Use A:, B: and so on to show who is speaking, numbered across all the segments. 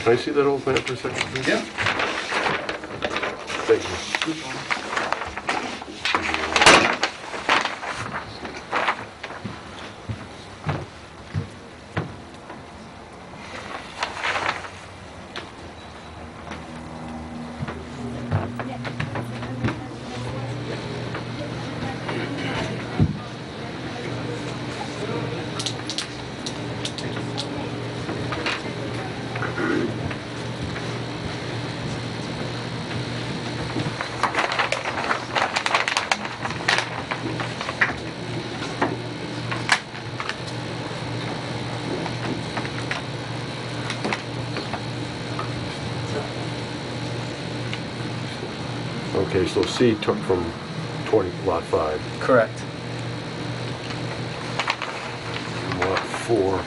A: Can I see that old map for a second, please?
B: Yeah.
A: Thank you. Okay, so C took from 20, lot 5,
C: Correct.
A: and lot 4.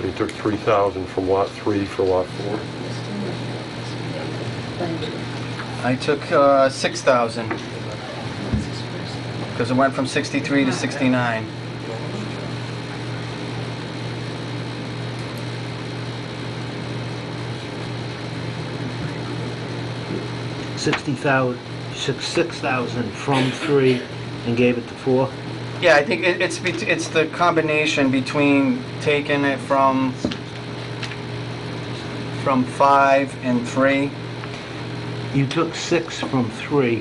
A: They took 3,000 from lot 3 for lot 4.
C: I took uh, 6,000 because it went from 63 to 69.
D: sixty thousand, six, six thousand from three and gave it to four?
C: Yeah, I think it, it's bet- it's the combination between taking it from from five and three.
D: You took six from three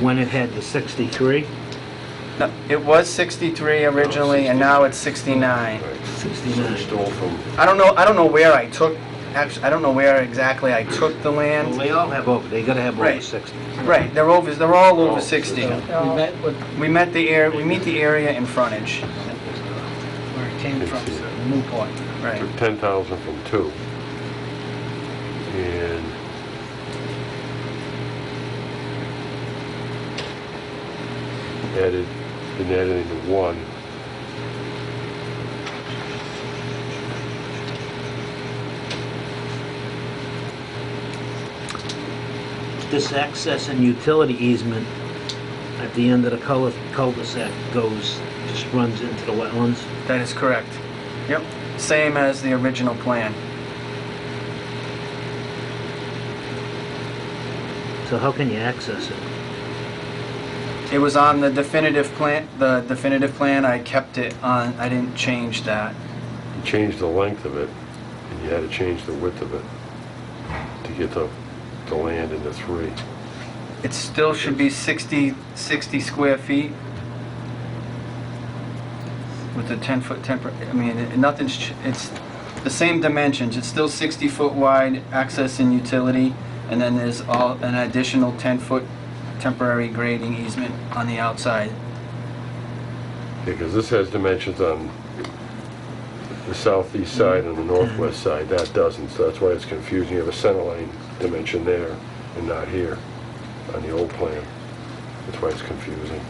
D: when it had the sixty-three?
C: No, it was 63 originally, and now it's 69.
A: They
D: Sixty-nine.
A: Stole from
C: I don't know. I don't know where I took. Actually, I don't know where exactly I took the
D: Well,
C: land.
D: they all have over, they gotta have over
C: Right.
D: sixty.
C: Right, they're over. They're all
A: Oh,
C: over 60.
E: We met with
C: We met the air. We meet the area in frontage.
E: where it came from,
A: Let's see.
E: Newport.
C: Right.
A: took 10,000 from two. And added, didn't add anything to one.
D: This access and utility easement at the end of the cul- cul-de-sac goes, just runs into the wetlands.
C: That is correct. Yep. Same as the original plan.
D: So how can you access it?
C: It was on the definitive plan. The definitive plan. I kept it on. I didn't change that.
A: You changed the length of it, and you had to change the width of it to get the, the land into three.
C: It still should be 60, 60 square feet. With the 10-foot temper, I mean, it- nothing's, ch- it's the same dimensions. It's still 60 foot wide, access and utility, and then there's all, an additional 10-foot temporary grading easement on the outside.
A: Because this has dimensions on the southeast side and the northwest side, that doesn't, so that's why it's confusing. You have a center line dimension there and not here on the old plan. That's why it's confusing.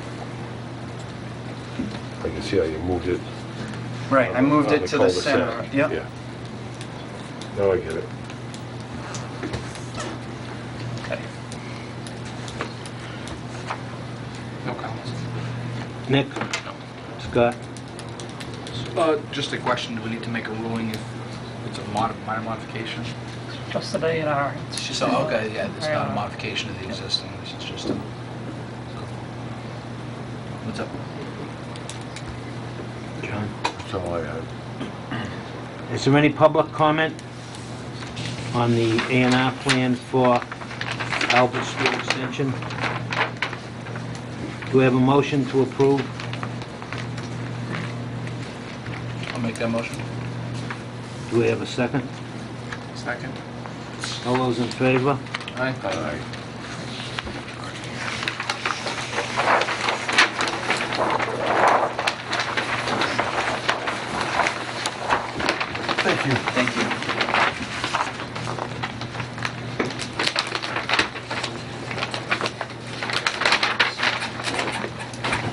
A: I can see how you moved it.
C: Right, I
A: on
C: moved
A: on
C: it to the
A: cul-de-sac.
C: center. Yep.
A: Yeah. Now I get it.
B: No comments.
D: Nick? Scott?
B: Uh, Just a question, do we need to make a ruling if it's a mod- minor modification?
E: Just an A and R. It's
B: So, okay, yeah, it's not a
E: Yeah.
B: modification of the existing, this is just a... What's up?
D: John?
A: That's all I had.
D: Is there any public comment on the A and R plan for Albert Street Extension? Do we have a motion to approve?
B: I'll make that motion.
D: Do we have a second?
B: Second.
D: All those in favor?
B: Aye. Aye.
C: Thank